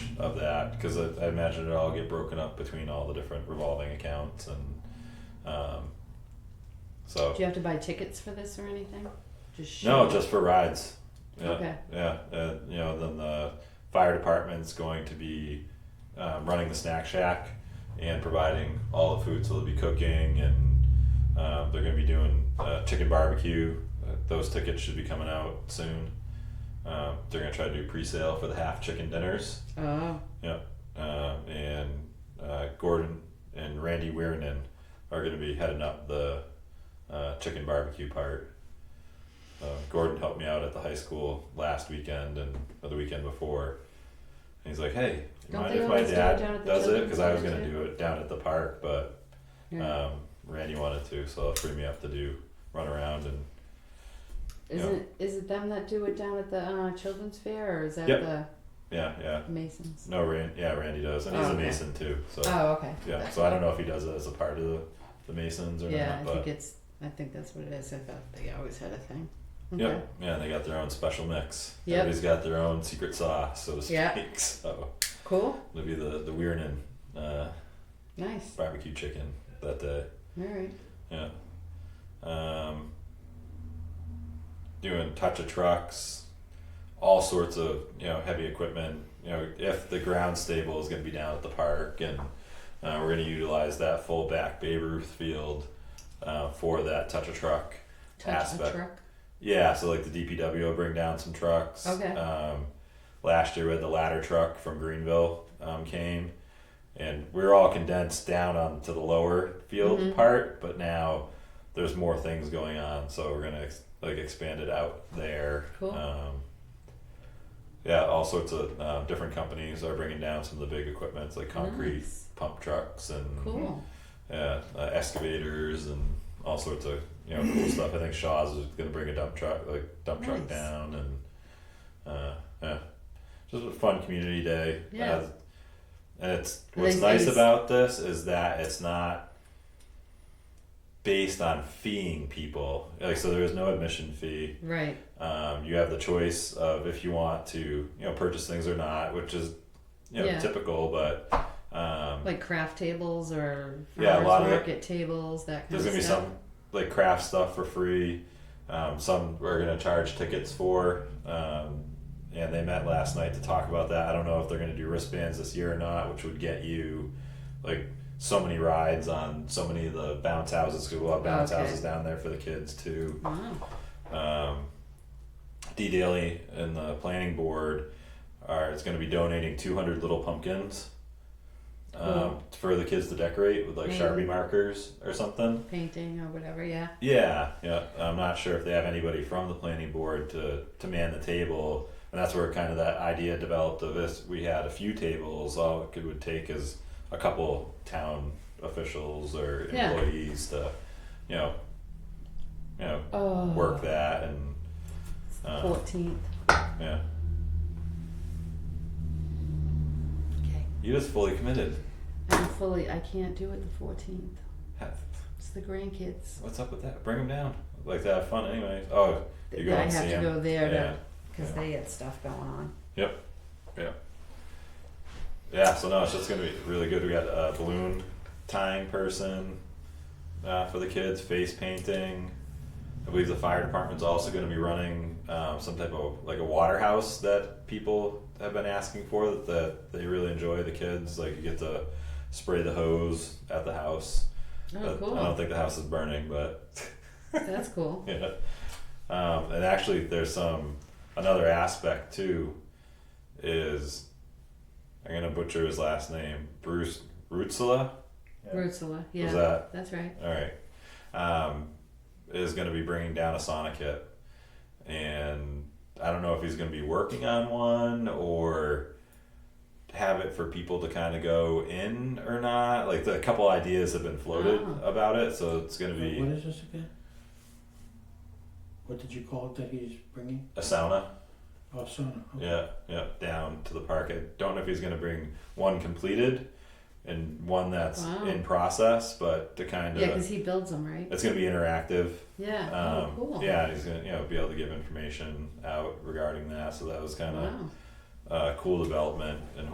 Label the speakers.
Speaker 1: of that because I, I imagine it'll all get broken up between all the different revolving accounts and um, so
Speaker 2: Do you have to buy tickets for this or anything? Just
Speaker 1: no,
Speaker 2: show up?
Speaker 1: just for rides. Yeah,
Speaker 2: Okay.
Speaker 1: yeah. Uh, you know, then the fire department's going to be um, running the snack shack and providing all the food. So they'll be cooking, and um, they're going to be doing uh, chicken barbecue. Uh, those tickets should be coming out soon. Um, they're going to try to do pre-sale for the half chicken dinners.
Speaker 2: Oh,
Speaker 1: Um, and uh, Gordon and Randy Weirnen are going to be heading up the uh, chicken barbecue part. Uh, Gordon helped me out at the high school last weekend and or the weekend before. And he's like, "Hey, you
Speaker 2: Don't
Speaker 1: mind
Speaker 2: they
Speaker 1: if my
Speaker 2: always do it down
Speaker 1: dad
Speaker 2: at the
Speaker 1: does it?
Speaker 2: children's
Speaker 1: Because I was
Speaker 2: center,
Speaker 1: going to
Speaker 2: too?"
Speaker 1: do it down at the park, but
Speaker 2: yeah.
Speaker 1: um, Randy wanted to, so it'll free me up to do run around and
Speaker 2: Isn't is it them that do it down at the uh, children's fair, or is that
Speaker 1: Yep.
Speaker 2: the
Speaker 1: yeah, yeah.
Speaker 2: Masons?
Speaker 1: No, Rand, yeah, Randy does, and he's
Speaker 2: Oh,
Speaker 1: a
Speaker 2: okay.
Speaker 1: Mason too. So
Speaker 2: Oh, okay.
Speaker 1: yeah, so I don't know if he does it as a part of the, the Masons or
Speaker 2: Yeah,
Speaker 1: not,
Speaker 2: I
Speaker 1: but.
Speaker 2: think it's. I think that's what it is. I thought they always had a thing. Okay.
Speaker 1: Yep. Yeah, and they got their own special mix.
Speaker 2: Yep.
Speaker 1: Everybody's got their own secret sauce, so to speak.
Speaker 2: Yeah.
Speaker 1: So
Speaker 2: Cool.
Speaker 1: it'll be the the Weirnin uh,
Speaker 2: Nice.
Speaker 1: barbecue chicken that day.
Speaker 2: All right.
Speaker 1: Yeah. Um, doing touch of trucks, all sorts of you know heavy equipment. You know if the ground stable is going to be down at the park, and uh, we're going to utilize that full back Babe Ruth field uh, for that touch of truck.
Speaker 2: Touch
Speaker 1: Aspect.
Speaker 2: a truck.
Speaker 1: Yeah, so like the DPW will bring down some trucks.
Speaker 2: Okay.
Speaker 1: Um, last year we had the ladder truck from Greenville um, came, and we were all condensed down onto the lower field
Speaker 2: Mhm.
Speaker 1: part, but now there's more things going on, so we're gonna ex- like expand it out there.
Speaker 2: Cool.
Speaker 1: Um, yeah, all sorts of um, different companies are bringing down some of the big equipments like concrete
Speaker 2: Nice.
Speaker 1: pump trucks and
Speaker 2: Cool.
Speaker 1: yeah, uh, excavators and all sorts of you know cool stuff. I think Shaw's is going to bring a dump truck, like dump truck
Speaker 2: Nice.
Speaker 1: down, and uh, yeah, just a fun community day.
Speaker 2: Yeah.
Speaker 1: Uh, and it's
Speaker 2: And
Speaker 1: what's
Speaker 2: then
Speaker 1: nice
Speaker 2: things-
Speaker 1: about this is that it's not based on feeing people. Like so, there is no admission fee.
Speaker 2: Right.
Speaker 1: Um, you have the choice of if you want to, you know, purchase things or not, which is, you know,
Speaker 2: Yeah.
Speaker 1: typical. But um,
Speaker 2: Like craft tables or
Speaker 1: Yeah, a
Speaker 2: farmers
Speaker 1: lot of it-
Speaker 2: market tables. That kind
Speaker 1: There's
Speaker 2: of
Speaker 1: gonna be
Speaker 2: stuff.
Speaker 1: some like craft stuff for free. Um, some we're gonna charge tickets for. Um, and they met last night to talk about that. I don't know if they're gonna do wristbands this year or not, which would get you like so many rides on so many of the bounce houses. 'cause we'll have bounce
Speaker 2: Oh, Okay.
Speaker 1: houses down there for the kids too
Speaker 2: Wow.
Speaker 1: um, D Daly and the planning board are is going to be donating 200 little pumpkins um,
Speaker 2: Cool.
Speaker 1: for the kids to decorate with like
Speaker 2: Maybe.
Speaker 1: Sharpie markers or something.
Speaker 2: Painting or whatever. Yeah.
Speaker 1: Yeah, yeah. I'm not sure if they have anybody from the planning board to to man the table, and that's where kind of that idea developed of this. We had a few tables. All it could, would take is a couple town officials or
Speaker 2: Yeah.
Speaker 1: employees to, you know, you know,
Speaker 2: Oh.
Speaker 1: work that and. um,
Speaker 2: Fourteenth.
Speaker 1: yeah.
Speaker 2: Okay.
Speaker 1: You just fully committed.
Speaker 2: I'm fully. I can't do it the fourteenth.
Speaker 1: Ha-
Speaker 2: It's the grandkids.
Speaker 1: What's up with that? Bring them down. Like to have fun anyway. Oh, you go
Speaker 2: I
Speaker 1: and
Speaker 2: have
Speaker 1: see
Speaker 2: to
Speaker 1: him.
Speaker 2: go there
Speaker 1: yeah.
Speaker 2: to because
Speaker 1: Yeah.
Speaker 2: they had stuff going on.
Speaker 1: Yeah, so no, it's just gonna be really good. We got a balloon tying person uh, for the kids, face painting. I believe the fire department's also gonna be running um, some type of like a water house that people have been asking for that, that they really enjoy. The kids like you get to spray the hose at the house.
Speaker 2: Oh,
Speaker 1: But I don't
Speaker 2: cool.
Speaker 1: think the house is burning, but
Speaker 2: That's cool.
Speaker 1: yeah. Um, and actually, there's some another aspect too. Is I'm gonna butcher his last name, Bruce Rutzela.
Speaker 3: Yeah.
Speaker 2: Ursula.
Speaker 1: Was
Speaker 2: Yeah.
Speaker 1: that
Speaker 2: That's right.
Speaker 1: all right? Um, is gonna be bringing down a Sonic kit, and I don't know if he's gonna be working on one or have it for people to kind of go in or not. Like the, a couple ideas have been floated
Speaker 2: Ah.
Speaker 1: about it, so it's gonna
Speaker 3: Wait,
Speaker 1: be
Speaker 3: What is this again? What did you call it that he's bringing?
Speaker 1: a sauna.
Speaker 3: Oh, sauna. okay.
Speaker 1: Yeah, yeah, down to the park. I don't know if he's gonna bring one completed and one that's
Speaker 2: Wow.
Speaker 1: in process, but to kind
Speaker 2: Yeah,
Speaker 1: of
Speaker 2: because he builds them, right?
Speaker 1: it's gonna be interactive.
Speaker 2: Yeah.
Speaker 1: Um,
Speaker 2: oh, cool.
Speaker 1: Yeah, and he's gonna you know be able to give information out regarding that. So that was kind of
Speaker 2: Wow.
Speaker 1: uh, cool development, and